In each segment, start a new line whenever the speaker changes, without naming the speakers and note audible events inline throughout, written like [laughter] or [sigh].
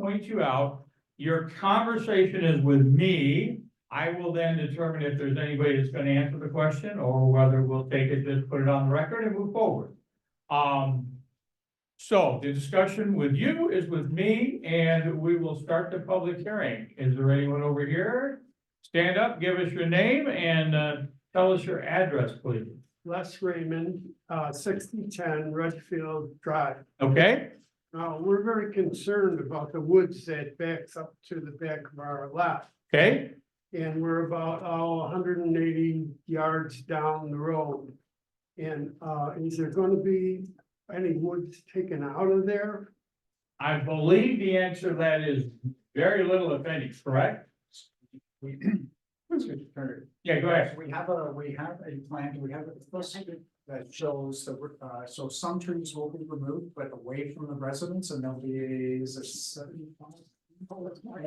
point you out. Your conversation is with me. I will then determine if there's anybody that's gonna answer the question or whether we'll take it, just put it on the record and move forward. Um. So the discussion with you is with me and we will start the public hearing. Is there anyone over here? Stand up, give us your name and uh tell us your address, please.
Les Raymond, uh, sixty-ten Redfield Drive.
Okay,
Now, we're very concerned about the woods that backs up to the back of our lot.
okay,
And we're about, oh, hundred and eighty yards down the road. And, uh, is there gonna be any woods taken out of there?
I believe the answer to that is very little if any, correct?
We, [clears throat] Mr. Turner,
Yeah, go ahead.
we have a, we have a plan, we have a posted that shows that, we're, uh, so some trees will be removed, but away from the residents and there'll be is a seventy five.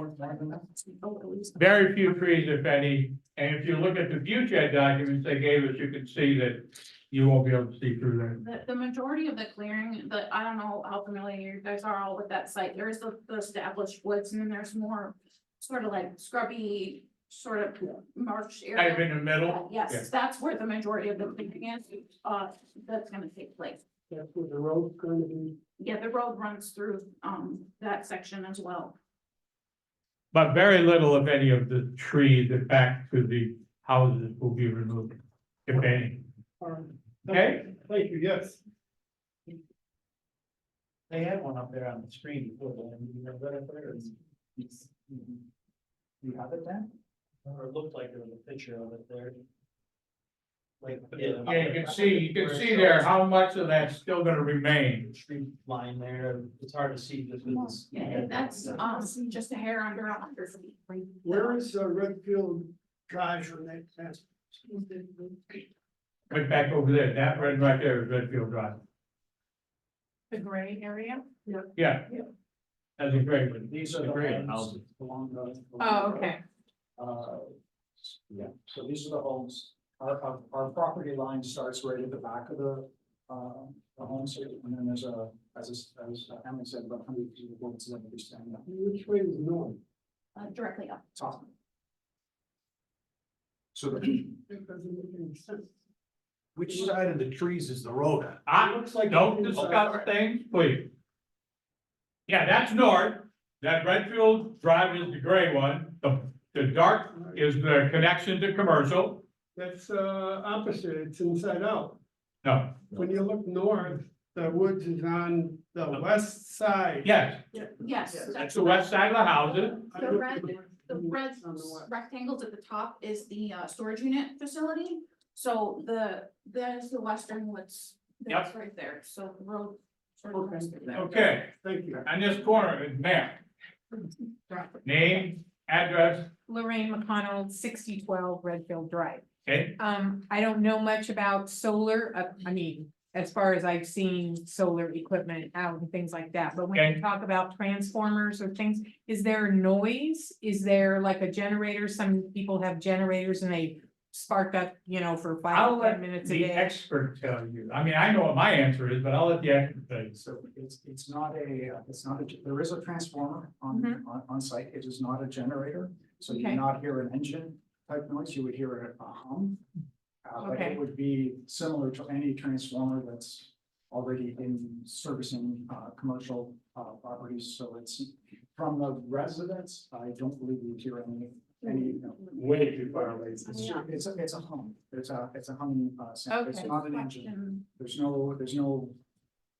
Very few trees, if any, and if you look at the view shed documents they gave us, you can see that you won't be able to see through there.
The, the majority of the clearing, the, I don't know how familiar you guys are all with that site, there's the, the established woods, and then there's more sort of like scrubby, sort of marsh
Kind of
area.
in the middle. Yeah.
Yes, that's where the majority of the clearing is, uh, that's gonna take place.
That's where the road's gonna be.
Yeah, the road runs through, um, that section as well.
But very little, if any, of the trees that back to the houses will be removed, if any. Okay.
Thank you, yes.
They had one up there on the screen before, but I mean, you know, that up there is. it's- You have it then? Or it looked like there was a picture of it there. Like. uh,
Yeah, you can see, you can see there how much of that's still gonna remain.
Street line there, it's hard to see this is.
Yeah, that's, um, just a hair under a hundred feet.
Where is uh, Redfield Drive on that? that's-
Right back over there, that red right there is Redfield Drive.
The gray area?
Yeah.
Yeah.
That's a great one.
These are the
Agree,
homes
houses.
along the.
Oh, okay,
Uh, yeah, so these are the homes, our, our, our property line starts right at the back of the, uh, the homes here, and then there's a, as, is- as Emily said, about hundred people, what's that, we stand up
Which way is north?
uh, directly up.
top. So the,
That doesn't make any sense.
Which side of the trees is the road on?
I,
Looks like-
Don't discuss things, please. Yeah, that's north, that Redfield Drive is the gray one, the, the dark is the connection to commercial.
That's uh opposite, it's inside out.
No,
When you look north, the woods is on the west side.
yes,
Yes.
that's the west side of the houses,
The red, the red
Mm-hmm. On the west.
rectangles at the top is the uh storage unit facility. So the, that is the western woods, that's right there, so the road. sort of goes through there.
okay,
Thank you.
on this corner, is ma'am. Name, address,
Lorraine McConnell, sixty twelve Redfield Drive.
okay,
Um, I don't know much about solar, uh, I mean, as far as I've seen solar equipment out and things like that, but when
Okay.
you talk about transformers or things, is there noise? Is there like a generator? Some people have generators and they spark up, you know, for
I'll
five,
let
ten minutes a
the
day.
expert tell you, I mean, I know what my answer is, but I'll let the expert tell you.
so it's, it's not a, uh, it's not, a ge- there is a transformer on, on, on site, it is not a generator. So you do
Mm-hmm. Okay.
not hear an engine type noise, you would hear a a hum. Uh, but
Okay.
it would be similar to any transformer that's already in servicing, uh, commercial, uh, properties, so it's. From the residents, I don't believe you hear any, any, you know,
Way too far away.
it's, it's, a- it's a hum, it's a, it's a humming, uh, sound, it's
Okay.
not an engine.
Question.
There's no, there's no,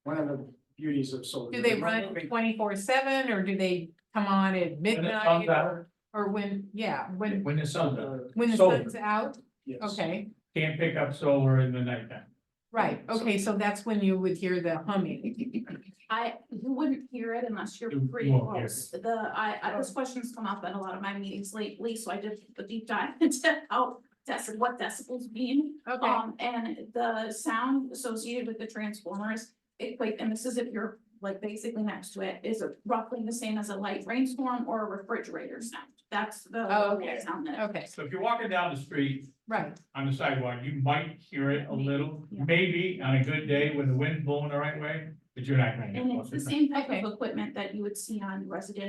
one of the beauties of solar.
Do they
there's no
run
big-
twenty four seven or do they come on at
comes
midnight
out.
or, or when, yeah, when,
When the sun's up,
uh,
when the
Solar.
sun's out?
yes.
Okay.
can't pick up solar in the nighttime.
Right,
So-
okay, so that's when you would hear the humming.
I, you wouldn't hear it unless you're
You- you
pretty
won't hear
close. The, I, I, this question's come up at a lot of my meetings lately, so I did a deep dive [laughs] into how deci- what decibels mean.
Okay,
Um, and the sound associated with the transformers, it like, and this is if you're like basically next to it, is roughly the same as a light rainstorm or a refrigerator sound. That's the.
Oh, okay.
Sound that.
okay,
So if you're walking down the street
right,
on the sidewalk, you might hear it a little,
Yeah.
maybe on a good day when the wind's blowing the right way, but you're not. gonna hear it
And
most
it's
of
the
time.
same type
Okay.
of equipment that you would see on residential